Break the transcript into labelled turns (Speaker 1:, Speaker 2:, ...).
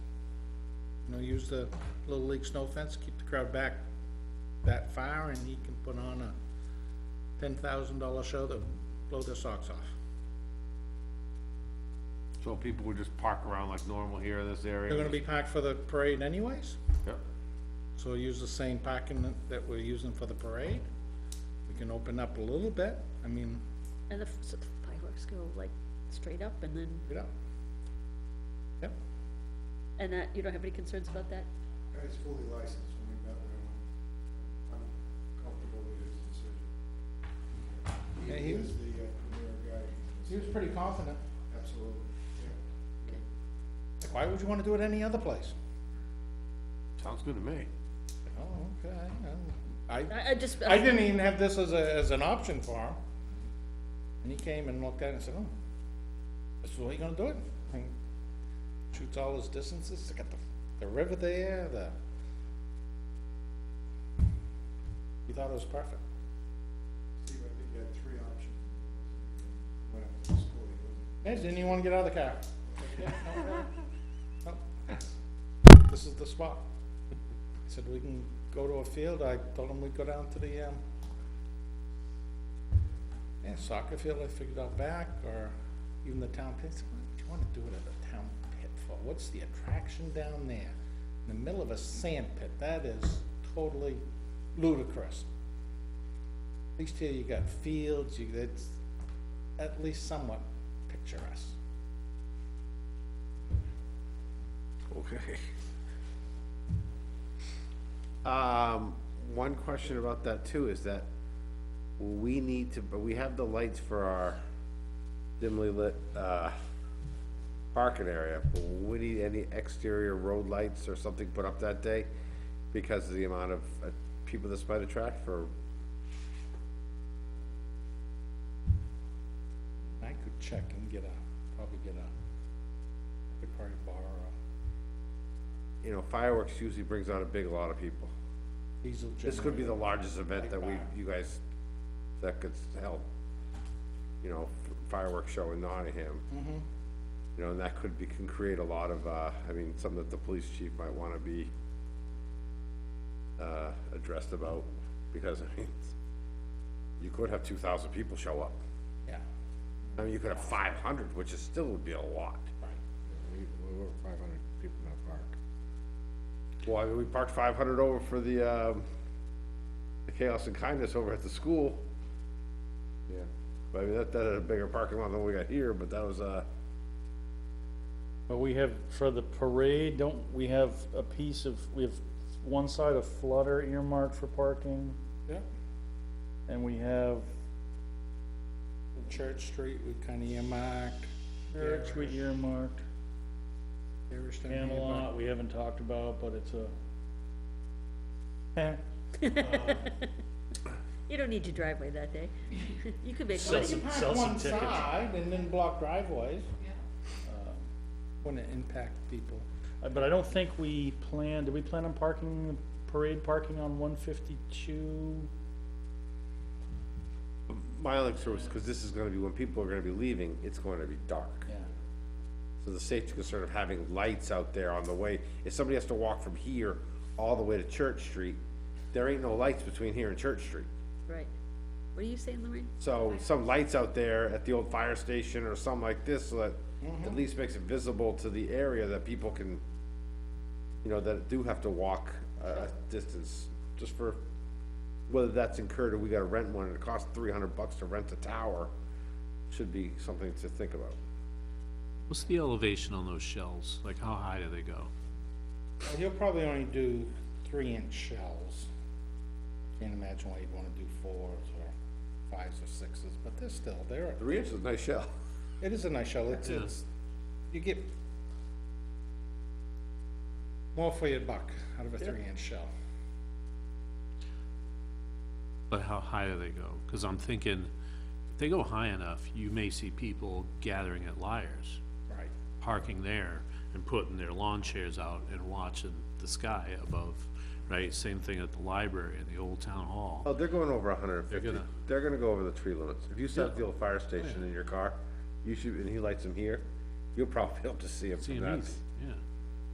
Speaker 1: you know, use the Little League snow fence, keep the crowd back that far, and he can put on a ten thousand dollar show that blow their socks off.
Speaker 2: So people would just park around like normal here in this area?
Speaker 1: They're gonna be packed for the parade anyways,
Speaker 2: Yep.
Speaker 1: so we'll use the same parking that- that we're using for the parade. We can open up a little bit, I mean,
Speaker 3: And the f- so the fireworks go like straight up and then,
Speaker 1: you know. Yep,
Speaker 3: and that, you don't have any concerns about that?
Speaker 4: And It's fully licensed when we met with him. I'm comfortable with his decision.
Speaker 1: Yeah,
Speaker 4: He
Speaker 1: he-
Speaker 4: is the uh, premier guy.
Speaker 1: he was pretty confident.
Speaker 4: Absolutely, yeah.
Speaker 1: Like, why would you wanna do it any other place?
Speaker 2: Sounds good to me.
Speaker 1: Oh, okay, I,
Speaker 3: I, I just, um,
Speaker 1: I
Speaker 3: I
Speaker 1: didn't even have this as a, as an option for him. And he came and looked at it and said, oh, this is what you're gonna do it? And Shoots all his distances, they got the, the river there, the. He thought it was perfect.
Speaker 4: Steve, I think he had three options. Went up to the school, he was
Speaker 1: Hey, didn't you wanna get out of the car? Yeah, no, really. No. This is the spot. I said, we can go to a field, I told him we'd go down to the, um, yeah, soccer field I figured out back, or even the town pit, I said, what do you wanna do it at the town pit for? What's the attraction down there? In the middle of a sand pit, that is totally ludicrous. At least here you got fields, you, it's at least somewhat picturesque.
Speaker 2: Okay. Um, one question about that too is that we need to, but we have the lights for our dimly lit, uh, parking area. but We need any exterior road lights or something put up that day because of the amount of uh, people this might attract for,
Speaker 1: I could check and get a, probably get a, could probably borrow, a
Speaker 2: you know, fireworks usually brings on a big lot of people.
Speaker 1: diesel generator.
Speaker 2: This could be the largest event that we, you guys, that could help, you know, fireworks show in Nottingham. You know, and that could be, can create a lot of, uh, I mean, something that the police chief might wanna be, uh, addressed about, because, I mean, you could have two thousand people show up.
Speaker 1: Yeah,
Speaker 2: I mean, you could have five hundred, which is, still would be a lot.
Speaker 1: right.
Speaker 5: We, we were five hundred people in that park.
Speaker 2: Well, I mean, we parked five hundred over for the, um, the Chaos and Kindness over at the school.
Speaker 5: Yeah.
Speaker 2: I mean, that, that had a bigger parking lot than we got here, but that was, uh,
Speaker 6: But we have, for the parade, don't, we have a piece of, we have one side of Flutter earmarked for parking,
Speaker 1: Yeah,
Speaker 6: and we have
Speaker 1: Church Street, we kinda earmarked.
Speaker 6: Church we earmarked,
Speaker 1: Parish down here, but-
Speaker 6: Camelot, we haven't talked about, but it's a. Eh,
Speaker 3: you don't need your driveway that day. You could make
Speaker 6: So-
Speaker 3: money.
Speaker 1: You
Speaker 6: some-
Speaker 1: park
Speaker 6: sell some
Speaker 1: one
Speaker 6: tickets.
Speaker 1: side and then block driveways. Wouldn't it Um, impact people.
Speaker 6: uh, but I don't think we planned, did we plan on parking, parade parking on one fifty-two?
Speaker 2: my only concern was, cause this is gonna be, when people are gonna be leaving, it's gonna be dark.
Speaker 6: Yeah.
Speaker 2: So the safety concern of having lights out there on the way, if somebody has to walk from here all the way to Church Street, there ain't no lights between here and Church Street.
Speaker 3: Right. What are you saying, Lorraine?
Speaker 2: So some lights out there at the old fire station or something like this, so that at least makes it visible to the area that people can, you know, that do have to walk a a distance, just for, whether that's incurred or we gotta rent one, and it costs three hundred bucks to rent a tower, should be something to think about.
Speaker 7: What's the elevation on those shells? Like, how high do they go?
Speaker 1: Well, He'll probably only do three inch shells. Can't imagine why you'd wanna do fours or fives or sixes, but they're still, they're,
Speaker 2: Three inches, is a nice shell.
Speaker 1: It is a nice shell, it's, it's, you get more for your buck out of a three inch shell.
Speaker 7: But how high do they go? Because I'm thinking, if they go high enough, you may see people gathering at Liars,
Speaker 1: Right.
Speaker 7: parking there and putting their lawn chairs out and watching the sky above, right? Same thing at the library and the old town hall.
Speaker 2: Oh, they're going over hundred and fifty,
Speaker 7: gonna-
Speaker 2: they're gonna go over the tree limits, if you set up the old fire station in your car, you should, and he lights them here, you'll probably be able to see them
Speaker 7: See
Speaker 2: from
Speaker 7: 'em
Speaker 2: that.
Speaker 7: easy, yeah.